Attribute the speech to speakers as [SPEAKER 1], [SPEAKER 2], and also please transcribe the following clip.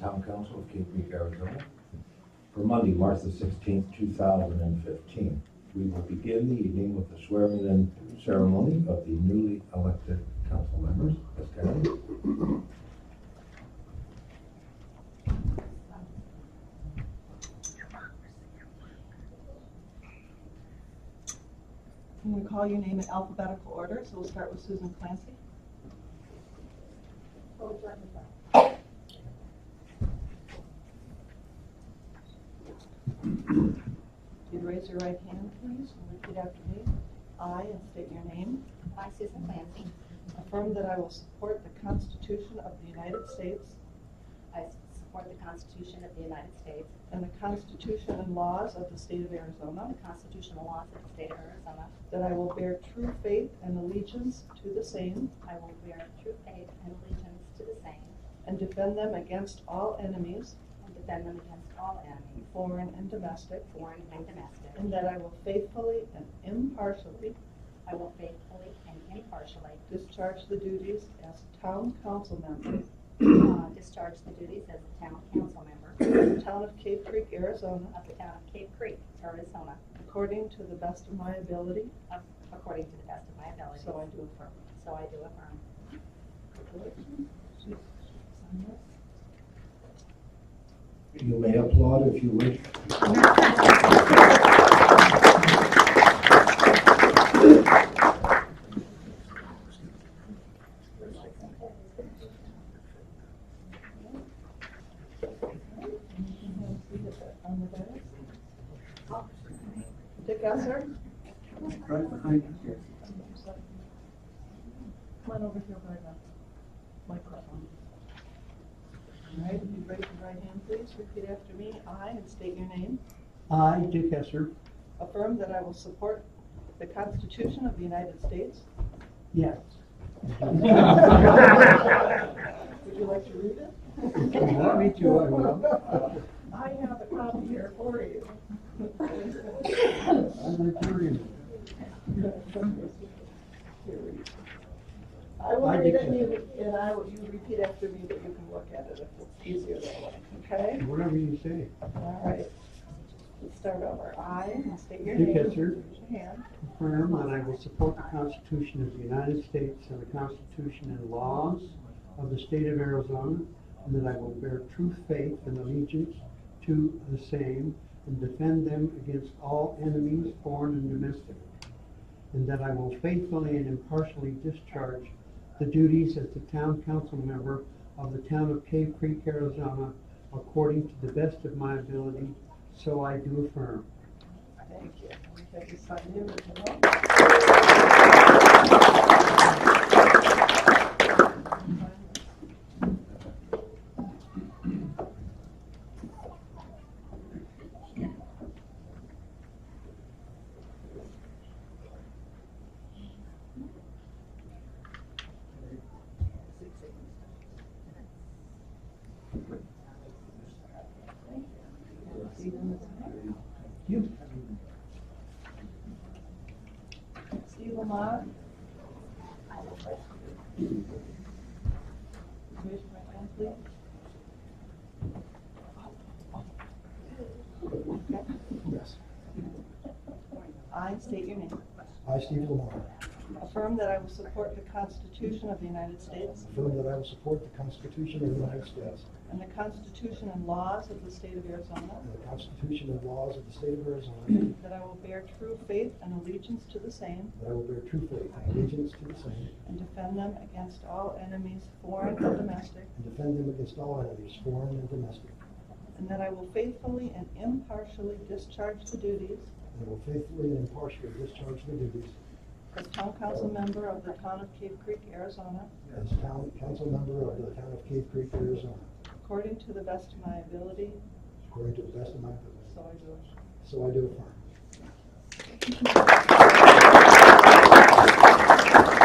[SPEAKER 1] Town Council of Cape Creek, Arizona, for Monday, March the sixteenth, two thousand and fifteen. We will begin the evening with the swearing-in ceremony of the newly elected council members. Ms. Kennedy?
[SPEAKER 2] I'm going to call your name in alphabetical order, so we'll start with Susan Clancy. You'd raise your right hand, please, and repeat after me. I, and state your name,
[SPEAKER 3] I, Susan Clancy,
[SPEAKER 2] affirm that I will support the Constitution of the United States
[SPEAKER 3] I support the Constitution of the United States,
[SPEAKER 2] and the Constitution and laws of the state of Arizona,
[SPEAKER 3] the constitutional laws of the state of Arizona.
[SPEAKER 2] that I will bear true faith and allegiance to the same
[SPEAKER 3] I will bear true faith and allegiance to the same
[SPEAKER 2] and defend them against all enemies,
[SPEAKER 3] and defend them against all enemies,
[SPEAKER 2] foreign and domestic,
[SPEAKER 3] foreign and domestic.
[SPEAKER 2] And that I will faithfully and impartially
[SPEAKER 3] I will faithfully and impartially
[SPEAKER 2] discharge the duties as town council member
[SPEAKER 3] uh, discharge the duties as a town council member
[SPEAKER 2] of the town of Cave Creek, Arizona,
[SPEAKER 3] of the town of Cave Creek, Arizona,
[SPEAKER 2] according to the best of my ability,
[SPEAKER 3] of- according to the best of my ability.
[SPEAKER 2] so I do affirm.
[SPEAKER 3] So I do affirm.
[SPEAKER 1] You may applaud if you wish.
[SPEAKER 2] Dick Esser?
[SPEAKER 4] Right behind you here.
[SPEAKER 2] Come on over here by the microphone. All right, if you raise your right hand, please repeat after me. I, and state your name,
[SPEAKER 4] I, Dick Esser,
[SPEAKER 2] affirm that I will support the Constitution of the United States
[SPEAKER 4] yes.
[SPEAKER 2] Would you like to read it?
[SPEAKER 4] If you want me to, I will.
[SPEAKER 2] I have a copy here for you.
[SPEAKER 4] I'm a curious.
[SPEAKER 2] I will
[SPEAKER 4] I
[SPEAKER 2] read it
[SPEAKER 4] did
[SPEAKER 2] and
[SPEAKER 4] that.
[SPEAKER 2] you, and I will, you repeat after me, but you can look at it if it's easier that way, okay?
[SPEAKER 4] Whatever you say.
[SPEAKER 2] All right. Let's start over. I, and state your name.
[SPEAKER 4] Dick Esser.
[SPEAKER 2] Raise your hand.
[SPEAKER 4] Affirm that I will support the Constitution of the United States and the Constitution and laws of the state of Arizona, and that I will bear true faith and allegiance to the same and defend them against all enemies, foreign and domestic, and that I will faithfully and impartially discharge the duties as the town council member of the town of Cave Creek, Arizona, according to the best of my ability, so I do affirm.
[SPEAKER 2] Thank you. We have you sign the original. Steve Lamont. Raise your right hand, please.
[SPEAKER 5] Yes.
[SPEAKER 2] I state your name.
[SPEAKER 5] I, Stephen Lamar,
[SPEAKER 2] Affirm that I will support the Constitution of the United States
[SPEAKER 5] affirm that I will support the Constitution of the United States
[SPEAKER 2] and the Constitution and laws of the state of Arizona,
[SPEAKER 5] and the Constitution and laws of the state of Arizona,
[SPEAKER 2] that I will bear true faith and allegiance to the same
[SPEAKER 5] that I will bear true faith and allegiance to the same,
[SPEAKER 2] and defend them against all enemies, foreign and domestic,
[SPEAKER 5] and defend them against all enemies, foreign and domestic,
[SPEAKER 2] and that I will faithfully and impartially discharge the duties
[SPEAKER 5] and will faithfully and impartially discharge the duties
[SPEAKER 2] as town council member of the town of Cave Creek, Arizona,
[SPEAKER 5] as town council member of the town of Cave Creek, Arizona,
[SPEAKER 2] according to the best of my ability,
[SPEAKER 5] according to the best of my ability.
[SPEAKER 2] so I do.
[SPEAKER 5] So I do affirm.